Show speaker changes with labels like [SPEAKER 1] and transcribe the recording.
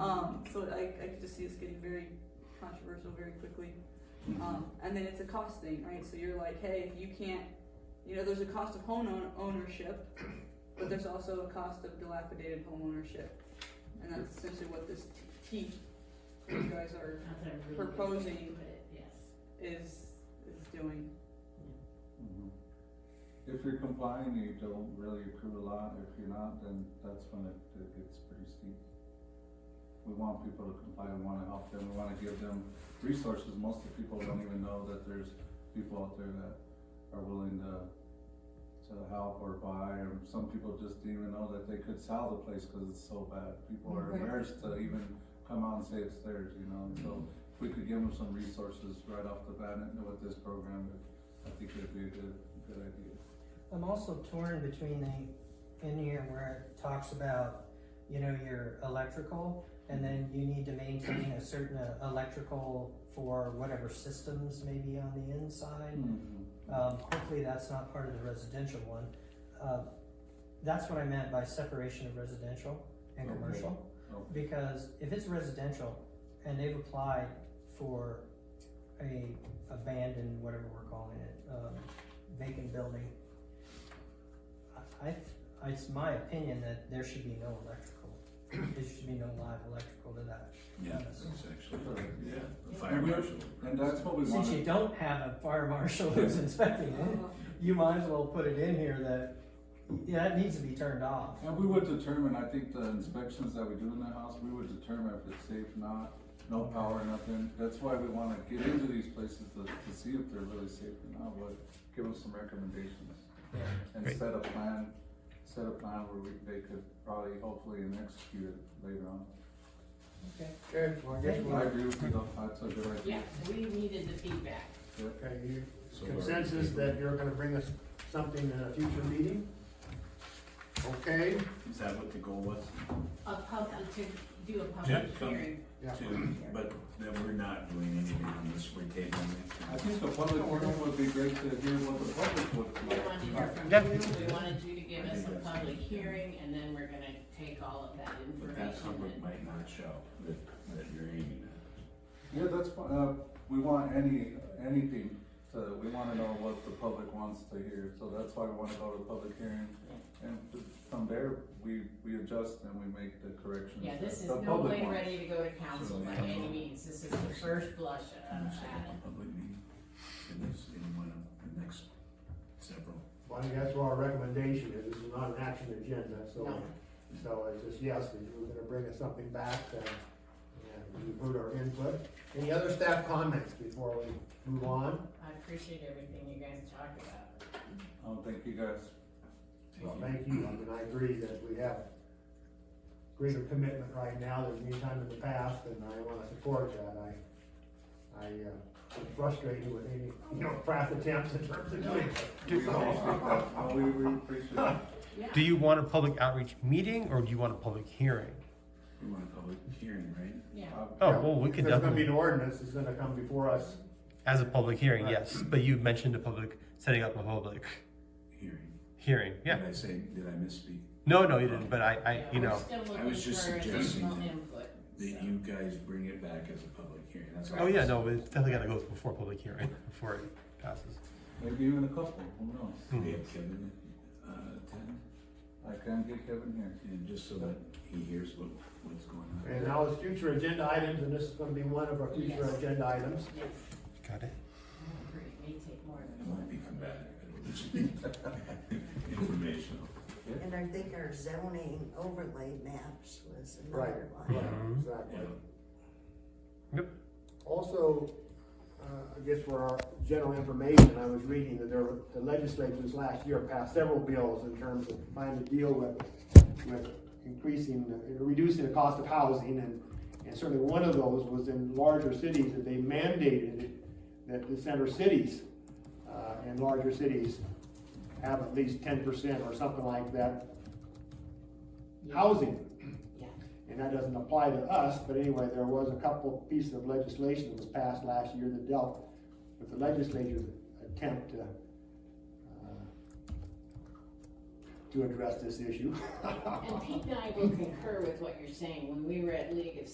[SPEAKER 1] Um, So I, I could just see this getting very controversial very quickly. Um, and then it's a cost thing, right? So you're like, hey, if you can't, you know, there's a cost of home own- ownership, but there's also a cost of dilapidated home ownership. And that's essentially what this T, T you guys are,
[SPEAKER 2] That's a really good way to
[SPEAKER 1] Proposing.
[SPEAKER 2] put it, Yes.
[SPEAKER 1] is, is doing.
[SPEAKER 3] Mhm. If you're complying, you don't really accrue a lot, if you're not, then that's when it, it gets pretty steep. We want people to comply, we wanna help them, we wanna give them resources, most of the people don't even know that there's people out there that are willing to, to help or buy, or some people just didn't even know that they could sell the place, cause it's so bad, people are
[SPEAKER 1] Right.
[SPEAKER 3] embarrassed to even come out and say it's theirs, you know, and so if we could give them some resources right off the bat and with this program, I think it'd be a good, good idea.
[SPEAKER 4] I'm also torn between the, in here where it talks about, you know, your electrical, and then you need to maintain a certain uh, electrical for whatever systems may be on the inside. Um, hopefully that's not part of the residential one. Uh, that's what I meant by separation of residential and
[SPEAKER 3] Okay.
[SPEAKER 4] commercial.
[SPEAKER 3] Okay.
[SPEAKER 4] Because if it's residential and they've applied for a abandoned, whatever we're calling it, um, vacant building, I, I, it's my opinion that there should be no electrical. There should be no live electrical to that.
[SPEAKER 5] Yeah, that's actually, yeah, the fire
[SPEAKER 3] And you-
[SPEAKER 5] marshal.
[SPEAKER 3] And that's what we
[SPEAKER 4] Since you
[SPEAKER 3] wanted,
[SPEAKER 4] don't have a fire marshal who's inspecting it. you might as well put it in here that, yeah, it needs to be turned off.
[SPEAKER 3] and we would determine, I think the inspections that we do in the house, we would determine if it's safe, not, no power, nothing. That's why we wanna get into these places to, to see if they're really safe or not, but give us some recommendations. And
[SPEAKER 6] Right.
[SPEAKER 3] set a plan, set a plan where we, they could probably hopefully execute it later on.
[SPEAKER 4] Okay.
[SPEAKER 7] Okay, well, I guess
[SPEAKER 4] Thank
[SPEAKER 7] we'll,
[SPEAKER 3] I agree with you, though. that's a good idea.
[SPEAKER 2] Yes, we needed the feedback.
[SPEAKER 7] okay, you,
[SPEAKER 5] So we're-
[SPEAKER 7] consensus that you're gonna bring us something in a future meeting? Okay,
[SPEAKER 5] Is that what the goal was?
[SPEAKER 2] A pub, uh, to do a
[SPEAKER 5] Yeah,
[SPEAKER 2] public
[SPEAKER 5] come.
[SPEAKER 2] hearing.
[SPEAKER 7] yeah,
[SPEAKER 5] To, but then we're not doing anything on this, we're tabling
[SPEAKER 3] I
[SPEAKER 5] it.
[SPEAKER 3] think the public forum would be great to hear what the public would.
[SPEAKER 2] We wanted to hear from you, we wanted you to give us a public hearing, and then we're gonna take all of that
[SPEAKER 5] But that
[SPEAKER 2] information
[SPEAKER 5] public
[SPEAKER 2] and.
[SPEAKER 5] might not show that, that you're aiming at.
[SPEAKER 3] Yeah, that's, fi- uh, we want any, anything, to we wanna know what the public wants to hear, so that's why we wanna go to the public hearing. And th- from there, we, we adjust and we make the corrections.
[SPEAKER 2] Yeah, this is
[SPEAKER 3] The
[SPEAKER 2] no
[SPEAKER 3] public
[SPEAKER 2] way
[SPEAKER 3] wants.
[SPEAKER 2] ready to go to council by any means, this is the first blush uh,
[SPEAKER 5] Can you set
[SPEAKER 2] at
[SPEAKER 5] up a public meeting for this in one of the next several?
[SPEAKER 7] well, I think that's what our recommendation is, this is not an action agenda, so,
[SPEAKER 2] No.
[SPEAKER 7] so it's just yes, that you were gonna bring us something back, and, and you've heard our input. Any other staff comments before we move on?
[SPEAKER 2] it. I appreciate everything you guys talked about.
[SPEAKER 3] Oh, thank you guys.
[SPEAKER 7] Well, thank you, I mean, I agree that we have greater commitment right now than any time in the past, and I wanna support that, I, I, uh, am frustrated with any, you know, craft attempts in terms of doing
[SPEAKER 3] We appreciate that. Oh, we, we appreciate it.
[SPEAKER 6] Do you want a public outreach meeting or do you want a public hearing?
[SPEAKER 5] We want a public hearing, right?
[SPEAKER 2] Yeah,
[SPEAKER 6] Oh, well, we could
[SPEAKER 7] If There's gonna be
[SPEAKER 6] definitely,
[SPEAKER 7] an ordinance, it's gonna come before us,
[SPEAKER 6] as a public hearing, yes, but you mentioned a public, setting up a public
[SPEAKER 5] Hearing.
[SPEAKER 6] hearing, yeah.
[SPEAKER 5] Did I say, did I misspeak?
[SPEAKER 6] No, no, you didn't, but I, I,
[SPEAKER 2] yeah,
[SPEAKER 6] you
[SPEAKER 2] we're
[SPEAKER 6] know,
[SPEAKER 2] still
[SPEAKER 5] I
[SPEAKER 2] looking
[SPEAKER 5] was just
[SPEAKER 2] for
[SPEAKER 5] suggesting
[SPEAKER 2] additional
[SPEAKER 5] that-
[SPEAKER 2] input,
[SPEAKER 5] That
[SPEAKER 2] so.
[SPEAKER 5] you guys bring it back as a public hearing, that's what I
[SPEAKER 6] oh yeah,
[SPEAKER 5] was-
[SPEAKER 6] no, it's definitely gotta go before public hearing, before it passes.
[SPEAKER 3] Maybe even a couple, who knows?
[SPEAKER 5] We have Kevin, uh, attend.
[SPEAKER 3] I can get Kevin here.
[SPEAKER 5] And just so that he hears what, what's going on.
[SPEAKER 7] and uh, now it's future agenda items, and this is gonna be one of our future
[SPEAKER 2] Yes.
[SPEAKER 7] agenda items.
[SPEAKER 2] Yes,
[SPEAKER 6] Got
[SPEAKER 2] I
[SPEAKER 6] it?
[SPEAKER 2] agree, it may take more
[SPEAKER 5] It
[SPEAKER 2] than one.
[SPEAKER 5] won't be combative, it'll just be informational.
[SPEAKER 8] And I think our zoning overlay maps was
[SPEAKER 7] Right,
[SPEAKER 8] another one.
[SPEAKER 7] right,
[SPEAKER 6] Mhm.
[SPEAKER 7] exactly.
[SPEAKER 6] Yep.
[SPEAKER 7] Also, uh, I guess for our general information, I was reading that there, were- the legislatures last year passed several bills in terms of trying to deal with, with increasing, the- reducing the cost of housing, and, and certainly one of those was in larger cities, that they mandated that the center cities, uh, and larger cities have at least ten percent or something like that
[SPEAKER 2] Yeah.
[SPEAKER 7] housing
[SPEAKER 2] Yeah.
[SPEAKER 7] and that doesn't apply to us, but anyway, there was a couple pieces of legislation that was passed last year that dealt with the legislature's attempt to, uh, to address this issue.
[SPEAKER 2] And Pete and I will concur with what you're saying, when we were at League of